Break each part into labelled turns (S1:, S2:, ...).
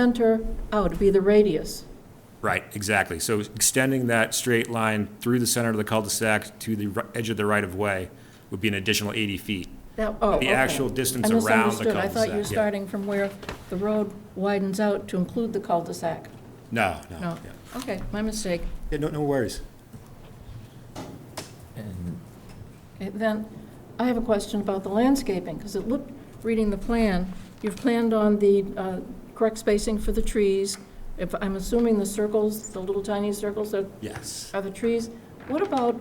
S1: center, oh, it'd be the radius.
S2: Right, exactly. So extending that straight line through the center of the cul-de-sac to the ri- edge of the right-of-way would be an additional 80 feet.
S1: That, oh,
S2: The
S1: okay.
S2: actual distance
S1: I
S2: around the
S1: misunderstood. I thought you were
S2: cul-de-sac, yeah.
S1: starting from where the road widens out to include the cul-de-sac.
S2: No, no.
S1: No,
S2: yeah.
S1: okay, my mistake.
S2: Yeah, no, no worries.
S1: Okay, Then, I have a question about the landscaping, because it looked, reading the plan, you've planned on the uh, correct spacing for the trees. If, I'm assuming the circles, the little tiny circles are
S2: Yes.
S1: are the trees. What about,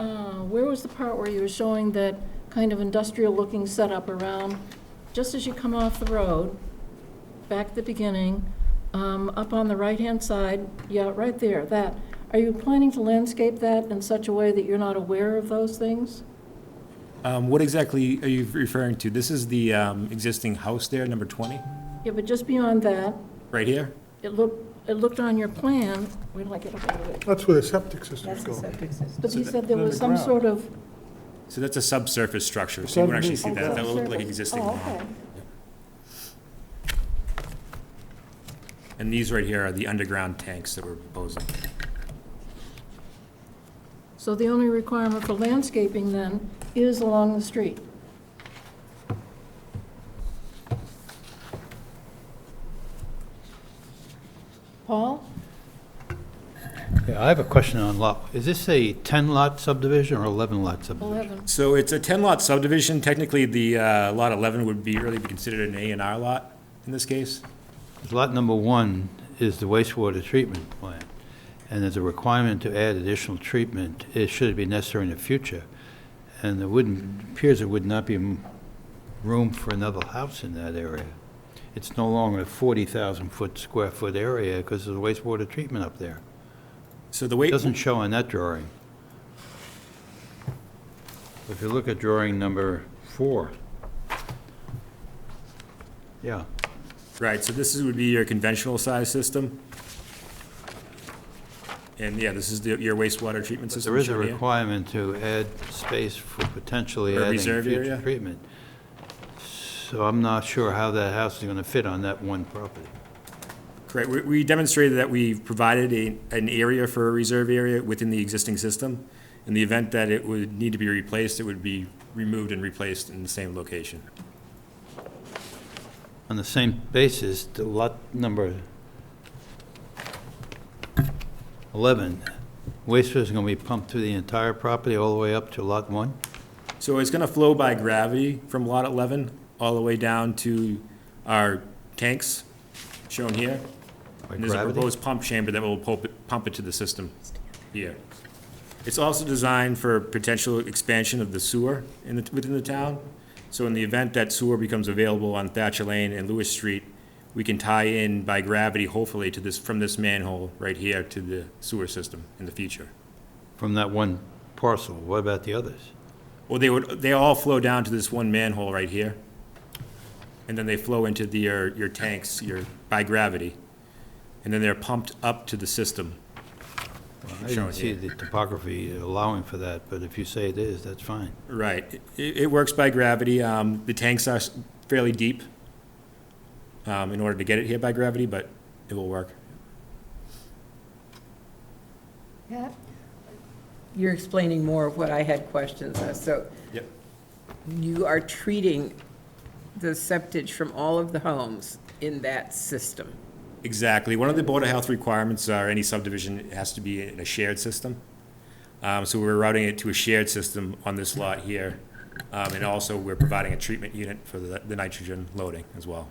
S1: uh, where was the part where you were showing that kind of industrial-looking setup around, just as you come off the road, back at the beginning, um, up on the right-hand side, yeah, right there, that. Are you planning to landscape that in such a way that you're not aware of those things?
S2: Um, What exactly are you referring to? This is the um, existing house there, number 20,
S1: Yeah, but just beyond that,
S2: right here?
S1: it looked, it looked on your plan, where did I get away with it?
S3: That's where the septic systems
S4: That's the
S3: go.
S4: septic system.
S1: But you
S2: that-
S1: said there was some
S3: Underground.
S1: sort of.
S2: So that's a subsurface structure, so you wouldn't actually see
S1: oh,
S2: that. That would look like
S1: subsurface.
S2: existing.
S1: Oh,
S2: lawn.
S1: okay.
S2: And these right here are the underground tanks that we're proposing.
S1: So the only requirement for landscaping then is along the street? Paul?
S5: Yeah, I have a question on lot. Is this a 10-lot subdivision or 11-lot subdivision?
S1: 11.
S2: So it's a 10-lot subdivision. Technically, the uh, lot 11 would be, really be considered an A and R lot in this case.
S5: 'Cause Lot number one is the wastewater treatment plant, and there's a requirement to add additional treatment, it should it be necessary in the future. And there wouldn't, appears there would not be m- room for another house in that area. It's no longer a 40,000-foot, square-foot area because of the wastewater treatment up there.
S2: So the way.
S5: It doesn't show on that drawing. If you look at drawing number four. Yeah,
S2: Right, so this is, would be your conventional size system. And yeah, this is the- your wastewater treatment
S5: but
S2: system.
S5: there is a
S2: shown here.
S5: requirement to add space for potentially
S2: For
S5: adding
S2: reserve area?
S5: future treatment. So I'm not sure how that house is going to fit on that one property.
S2: Correct, we, we demonstrated that we provided a, an area for a reserve area within the existing system. In the event that it would need to be replaced, it would be removed and replaced in the same location.
S5: On the same basis, the lot number 11, wastewater is going to be pumped through the entire property all the way up to lot one?
S2: So it's gonna flow by gravity from lot eleven all the way down to our tanks shown here.
S5: by
S2: And there's a
S5: gravity?
S2: proposed pump chamber that will pump it, pump it to the system here. It's also designed for potential expansion of the sewer in the, within the town. So in the event that sewer becomes available on Thatcher Lane and Lewis Street, we can tie in by gravity, hopefully, to this, from this manhole right here to the sewer system in the future.
S5: from that one parcel. What about the others?
S2: Well, they would, they all flow down to this one manhole right here. And then they flow into the, your, your tanks, your, by gravity. And then they're pumped up to the system.
S5: I
S2: Shown
S5: didn't see
S2: here.
S5: the topography allowing for that, but if you say it is, that's fine.
S2: Right. It, it works by gravity. Um, the tanks are s- fairly deep um, in order to get it here by gravity, but it will work.
S4: Pat? You're explaining more of what I had questions on, so
S2: Yep.
S4: you are treating the septic from all of the homes in that system.
S2: Exactly. One of the Board of Health requirements are any subdivision has to be in a shared system. Um, so we're routing it to a shared system on this lot here. Um, and also we're providing a treatment unit for the, the nitrogen loading as well.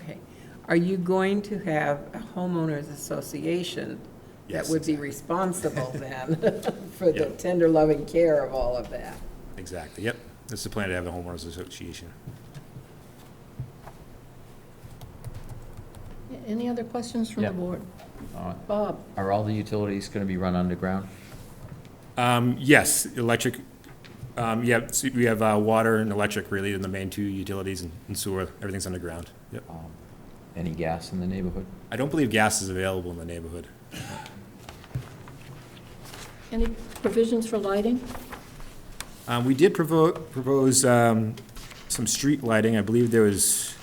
S4: Okay. Are you going to have a homeowners association that
S2: Yes,
S4: would be responsible then for the
S2: Yeah.
S4: tender loving care of all of that?
S2: Exactly. Yep. That's the plan to have the homeowners association.
S1: Any other questions from the
S6: Yeah.
S1: board?
S6: Uh,
S1: Bob?
S6: Are all the utilities going to be run underground?
S2: Um, yes, electric, um, yeah, so we have, uh, water and electric really in the main two utilities and and sewer, everything's underground. Yep.
S6: Um, Any gas in the neighborhood?
S2: I don't believe gas is available in the neighborhood.
S1: Any provisions for lighting?
S2: Um, we did provo- propose, um, some street lighting, I believe there was